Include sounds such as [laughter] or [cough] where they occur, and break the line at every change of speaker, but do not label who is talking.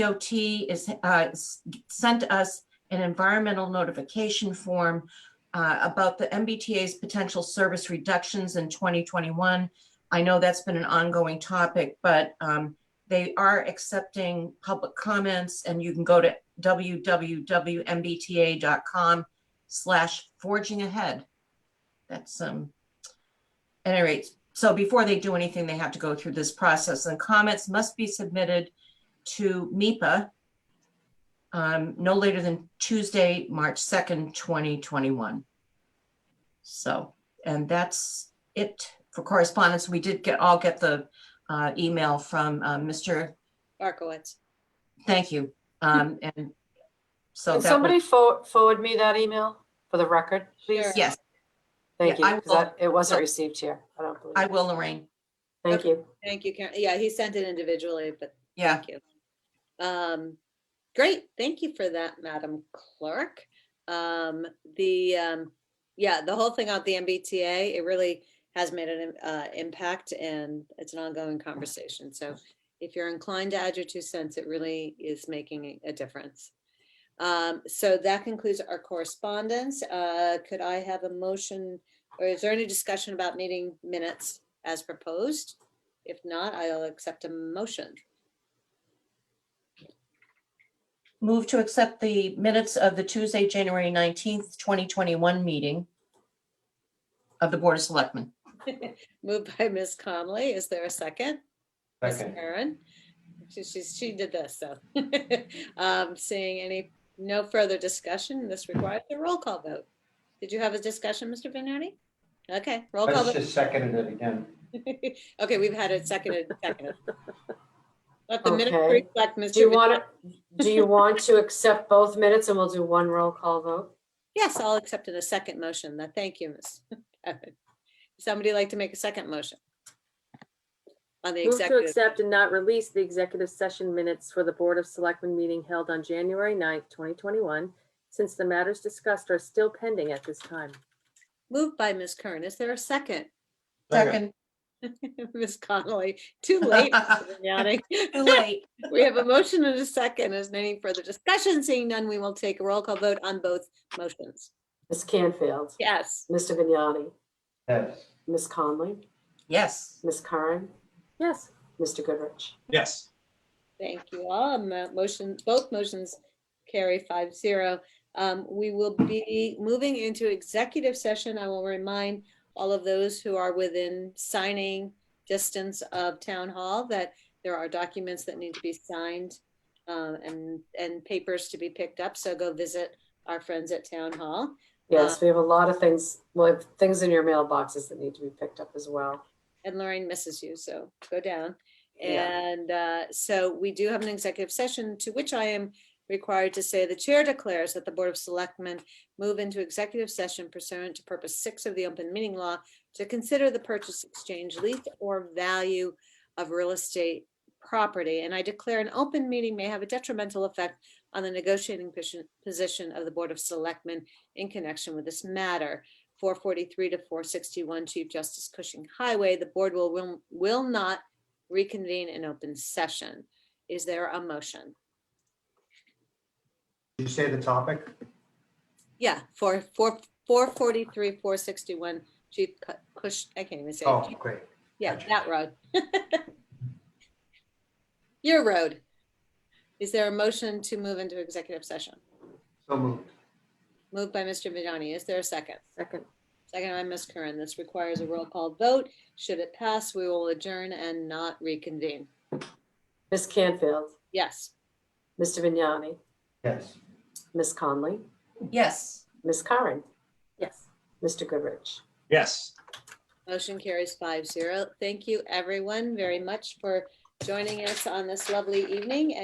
DOT is, uh, s- sent us an environmental notification form uh, about the MBTA's potential service reductions in 2021. I know that's been an ongoing topic, but um, they are accepting public comments and you can go to www.mbta.com slash forging ahead. That's, um, at any rate, so before they do anything, they have to go through this process and comments must be submitted to MIPA um, no later than Tuesday, March 2nd, 2021. So, and that's it for correspondence. We did get, all get the uh, email from uh, Mr.
Barkowitz.
Thank you. Um, And so
Can
that
somebody
was,
forward, forward me that email for the record, please?
Sure.
yes,
Thank you,
Yeah, I
'cause that- it wasn't
will.
received here. I don't believe.
I
it.
will, Lorraine.
Thank you.
Thank you, Karen. Yeah, he sent it individually, but
Yeah,
thank you. Um, great, thank you for that, Madam Clerk. Um, the, um, yeah, the whole thing out the MBTA, it really has made an, uh, impact and it's an ongoing conversation. So if you're inclined to add your two cents, it really is making a difference. Um, so that concludes our correspondence. Uh, could I have a motion? Or is there any discussion about meeting minutes as proposed? If not, I'll accept a motion.
move to accept the minutes of the Tuesday, January 19th, 2021 meeting of the Board of Selectmen.
Moved by [laughs] Ms. Conley. Is there a second? Ms.
Second,
Karen? She, she's, she did this, so. [laughs] Um, seeing any, no further discussion, this requires a roll call vote. Did you have a discussion, Mr. Vignani? Okay, roll call
let's
vote.
just second it again.
[laughs] Okay, we've had it seconded, seconded. Let the minute
Okay.
reflect, Mr.
Do you
Vignani.
want, to? do you want to accept both minutes and we'll do one roll call vote?
Yes, I'll accept in a second motion. That, thank you, [laughs] Ms. Evan. Somebody like to make a second motion? On the
Move to
executive,
accept and not release the executive session minutes for the Board of Selectmen meeting held on January 9th, 2021, since the matters discussed are still pending at this time.
moved by Ms. Kern. Is there a second?
Second,
[laughs] Ms. Connolly,
[laughs]
too late. Mr. Vignani.
too late.
We have a motion and a second. Is there any further discussion? Seeing none, we will take a roll call vote on both motions.
Ms. Canfield,
Yes.
Mr. Vignani,
Yes,
Ms. Conley,
Yes.
Ms. Karen,
Yes.
Mr. Goodrich.
Yes.
Thank you all. Mo- Motion, both motions carry five zero. Um, we will be moving into executive session. I will remind all of those who are within signing distance of town hall that there are documents that need to be signed um, and, and papers to be picked up. So go visit our friends at town hall.
Yes, we have a lot of things, we have things in your mailboxes that need to be picked up as well.
And Lorraine misses you, so go down.
Yeah.
And uh, so we do have an executive session to which I am required to say the chair declares that the Board of Selectmen move into executive session pursuant to purpose six of the open meeting law to consider the purchase, exchange, lease, or value of real estate property. And I declare an open meeting may have a detrimental effect on the negotiating posi- position of the Board of Selectmen in connection with this matter. 443 to 461 Chief Justice Cushing Highway, the board will, will, will not reconvene in open session. Is there a motion?
did you say the topic?
Yeah, for, for, 443, 461 Chief Cu- Cush, I can't even say. it.
Oh, great.
Yeah,
gotcha.
that road. [laughs] Your road. Is there a motion to move into executive session?
So moved.
Moved by Mr. Vignani. Is there a second?
Second.
Second by Ms. Curran. This requires a roll call vote. Should it pass, we will adjourn and not reconvene.
Ms. Canfield,
Yes.
Mr. Vignani,
Yes.
Ms. Conley,
Yes.
Ms. Karen,
Yes.
Mr. Goodrich.
Yes.
Motion carries five zero. Thank you, everyone, very much for joining us on this lovely evening.